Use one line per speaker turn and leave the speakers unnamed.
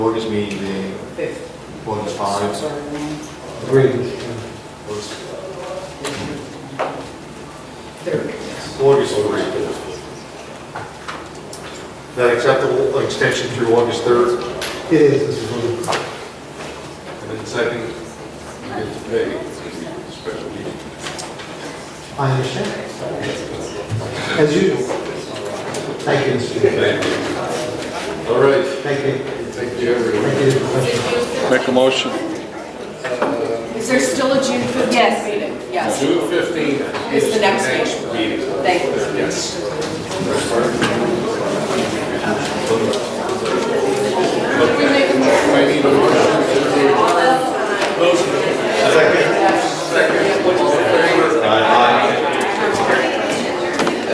August meeting, the
Fifth.
August
Sorry,
5,
one,
Agreed.
August
Third.
August 3. Is that acceptable, an extension through August 3rd?
It is, Mr. Booth.
And then second, you get to pay the special meeting.
I understand. As usual. Thank you, Mr. Booth.
Thank you. All right,
Thank you.
thank you, everyone.
Thank you for the question.
Make a motion.
Is there still a June fifteenth meeting? Yes.
June 15th
It's
is
the
the
next
next
one.
meeting.
Thank you.
Yes.